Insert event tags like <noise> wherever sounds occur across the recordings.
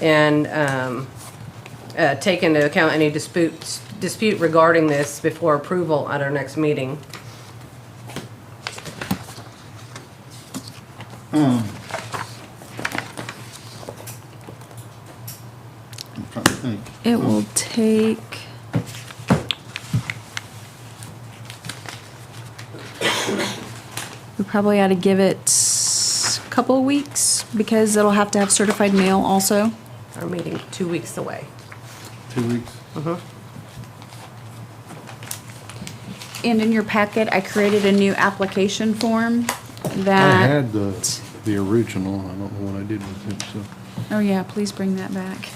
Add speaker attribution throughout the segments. Speaker 1: and um, uh, take into account any disputes, dispute regarding this before approval at our next meeting.
Speaker 2: I'm trying to think.
Speaker 3: It will take. We probably ought to give it a couple of weeks because it'll have to have certified mail also.
Speaker 1: Our meeting two weeks away.
Speaker 2: Two weeks.
Speaker 3: And in your packet, I created a new application form
Speaker 2: I
Speaker 3: that.
Speaker 2: had the, the original, I don't know what I did with it, so.
Speaker 3: Oh, yeah, please bring that back.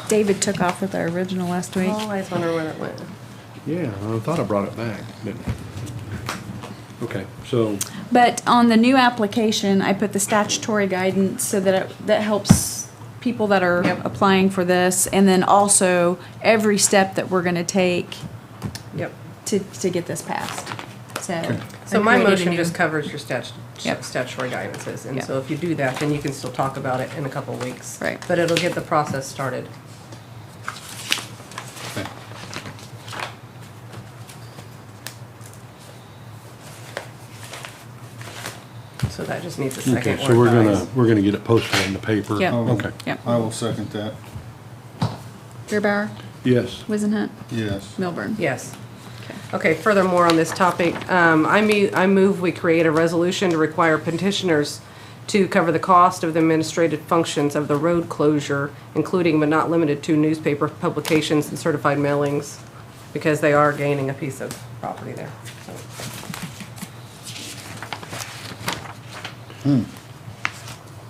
Speaker 3: <laughs> David took off with our original last week.
Speaker 1: Always wonder where it went.
Speaker 2: Yeah, I thought I brought it back, but, okay, so,
Speaker 3: But on the new application, I put the statutory guidance so that it, that helps people that are
Speaker 1: Yep.
Speaker 3: applying for this, and then also every step that we're gonna take
Speaker 1: Yep.
Speaker 3: to, to get this passed, so.
Speaker 1: So
Speaker 3: I
Speaker 1: my
Speaker 3: created a
Speaker 1: motion
Speaker 3: new-
Speaker 1: just covers your statu-
Speaker 3: Yep.
Speaker 1: statutory guidances, and
Speaker 3: Yep.
Speaker 1: so if you do that, then you can still talk about it in a couple weeks.
Speaker 3: Right.
Speaker 1: But it'll get the process started.
Speaker 2: okay.
Speaker 1: So that just needs a
Speaker 2: Okay,
Speaker 1: second
Speaker 2: so we're
Speaker 1: or
Speaker 2: gonna,
Speaker 1: guys.
Speaker 2: we're gonna get it posted in the paper.
Speaker 3: Yep. Oh.
Speaker 2: Okay,
Speaker 3: Yep.
Speaker 4: I will second that,
Speaker 3: Beerbauer,
Speaker 2: yes,
Speaker 3: Wizenhut,
Speaker 4: yes.
Speaker 3: Milburn.
Speaker 1: Yes. Okay, furthermore on this topic, um, I mu- I move we create a resolution to require petitioners to cover the cost of the administrative functions of the road closure, including but not limited to newspaper publications and certified mailings, because they are gaining a piece of property there. So,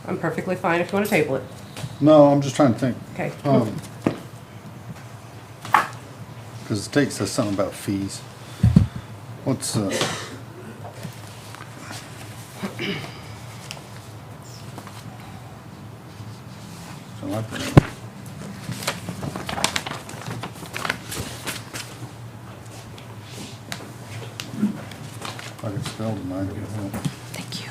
Speaker 1: I'm perfectly fine if you want to table it.
Speaker 4: No, I'm just trying to think,
Speaker 1: Okay.
Speaker 4: um, cause the state says something about fees. What's, uh, so I put it- I could spell tonight, if you want.
Speaker 3: Thank you.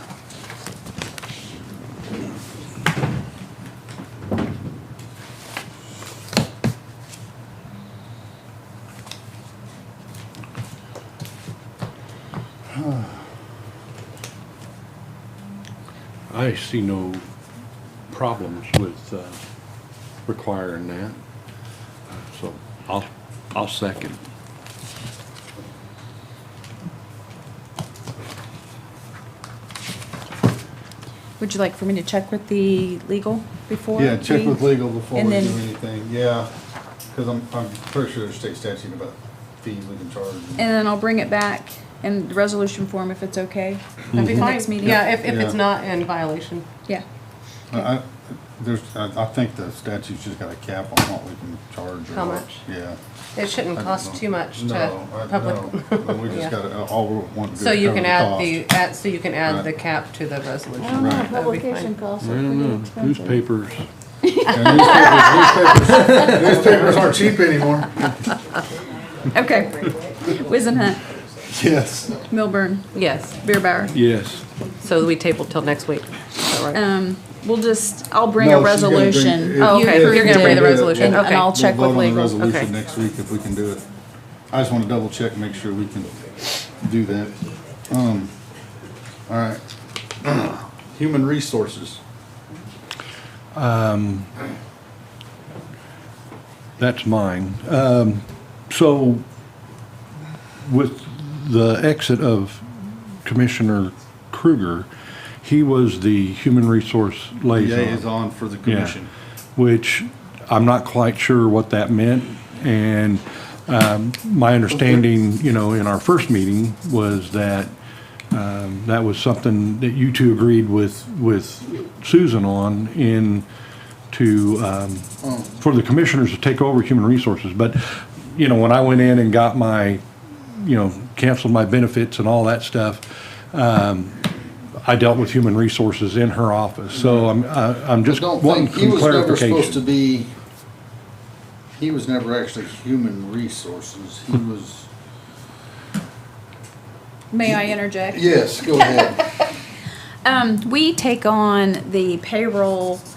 Speaker 2: I see no problems with, uh, requiring that. So, I'll, I'll second.
Speaker 3: Would you like for me to check with the legal before?
Speaker 4: Yeah, check
Speaker 3: we-
Speaker 4: with legal before we
Speaker 3: And
Speaker 4: do
Speaker 3: then-
Speaker 4: anything, yeah, because I'm, I'm pretty sure there's state statute about fees we can charge.
Speaker 3: And then I'll bring it back in the resolution form if it's okay.
Speaker 1: That'd be
Speaker 3: Mhm.
Speaker 1: fine.
Speaker 3: Next meeting.
Speaker 1: Yeah, if, if it's
Speaker 4: Yeah.
Speaker 1: not in violation.
Speaker 3: Yeah.
Speaker 4: I, I- there's, I, I think the statute's just got a cap on what we can charge. or
Speaker 1: How
Speaker 4: what-
Speaker 1: much?
Speaker 4: Yeah.
Speaker 1: It shouldn't cost too much to
Speaker 4: No, I, no,
Speaker 1: public.
Speaker 4: no, we
Speaker 1: Yeah.
Speaker 4: just gotta, uh, all we want to do is
Speaker 1: So you
Speaker 4: cover
Speaker 1: can
Speaker 4: the
Speaker 1: add
Speaker 4: cost.
Speaker 1: the, add, so you can add
Speaker 4: Right.
Speaker 1: the cap to the resolution.
Speaker 5: I don't know,
Speaker 4: Right.
Speaker 1: That'd be
Speaker 5: publication
Speaker 1: fine.
Speaker 5: costs
Speaker 2: I
Speaker 5: are
Speaker 2: don't
Speaker 5: pretty
Speaker 2: know,
Speaker 5: expensive.
Speaker 2: newspapers,
Speaker 4: And Newspapers newspapers- newspapers aren't cheap anymore.
Speaker 3: Okay. Wizenhut,
Speaker 4: <laughs> Yes.
Speaker 3: Milburn,
Speaker 1: Yes,
Speaker 3: Beerbauer.
Speaker 2: yes.
Speaker 1: so we table till next week. Is that right?
Speaker 3: Um, we'll just, I'll bring a
Speaker 4: No, she's gonna bring-
Speaker 3: resolution.
Speaker 4: if-
Speaker 1: Oh, okay,
Speaker 3: You
Speaker 1: you're gonna bring the
Speaker 3: approved it,
Speaker 1: resolution,
Speaker 3: and-
Speaker 1: okay.
Speaker 3: And I'll check
Speaker 4: We'll
Speaker 3: with
Speaker 4: vote on the
Speaker 3: legal.
Speaker 1: Okay.
Speaker 4: resolution next week if we can do it. I just wanna double check, make sure we can do that. Um, all right. <clears throat> Human resources.
Speaker 2: That's mine. Um, So with the exit of Commissioner Kruger, he was the human resource liaison.
Speaker 4: Liaison for the
Speaker 2: Yeah.
Speaker 4: commission.
Speaker 2: Which I'm not quite sure what that meant. And um, my understanding, you know, in our first meeting was that um, that was something that you two agreed with, with Susan on in to, um, for the commissioners to take over human resources. But, you know, when I went in and got my, you know, canceled my benefits and all that stuff, Um, I dealt with human resources in her office. So I'm, I- I'm just
Speaker 4: Mm-hmm. Don't
Speaker 2: wanting
Speaker 4: think, he
Speaker 2: some
Speaker 4: was never supposed to
Speaker 2: clarification.
Speaker 4: be, he was never actually human resources. He was,
Speaker 3: May I interject?
Speaker 4: yes, go ahead.
Speaker 3: Um, we take on the payroll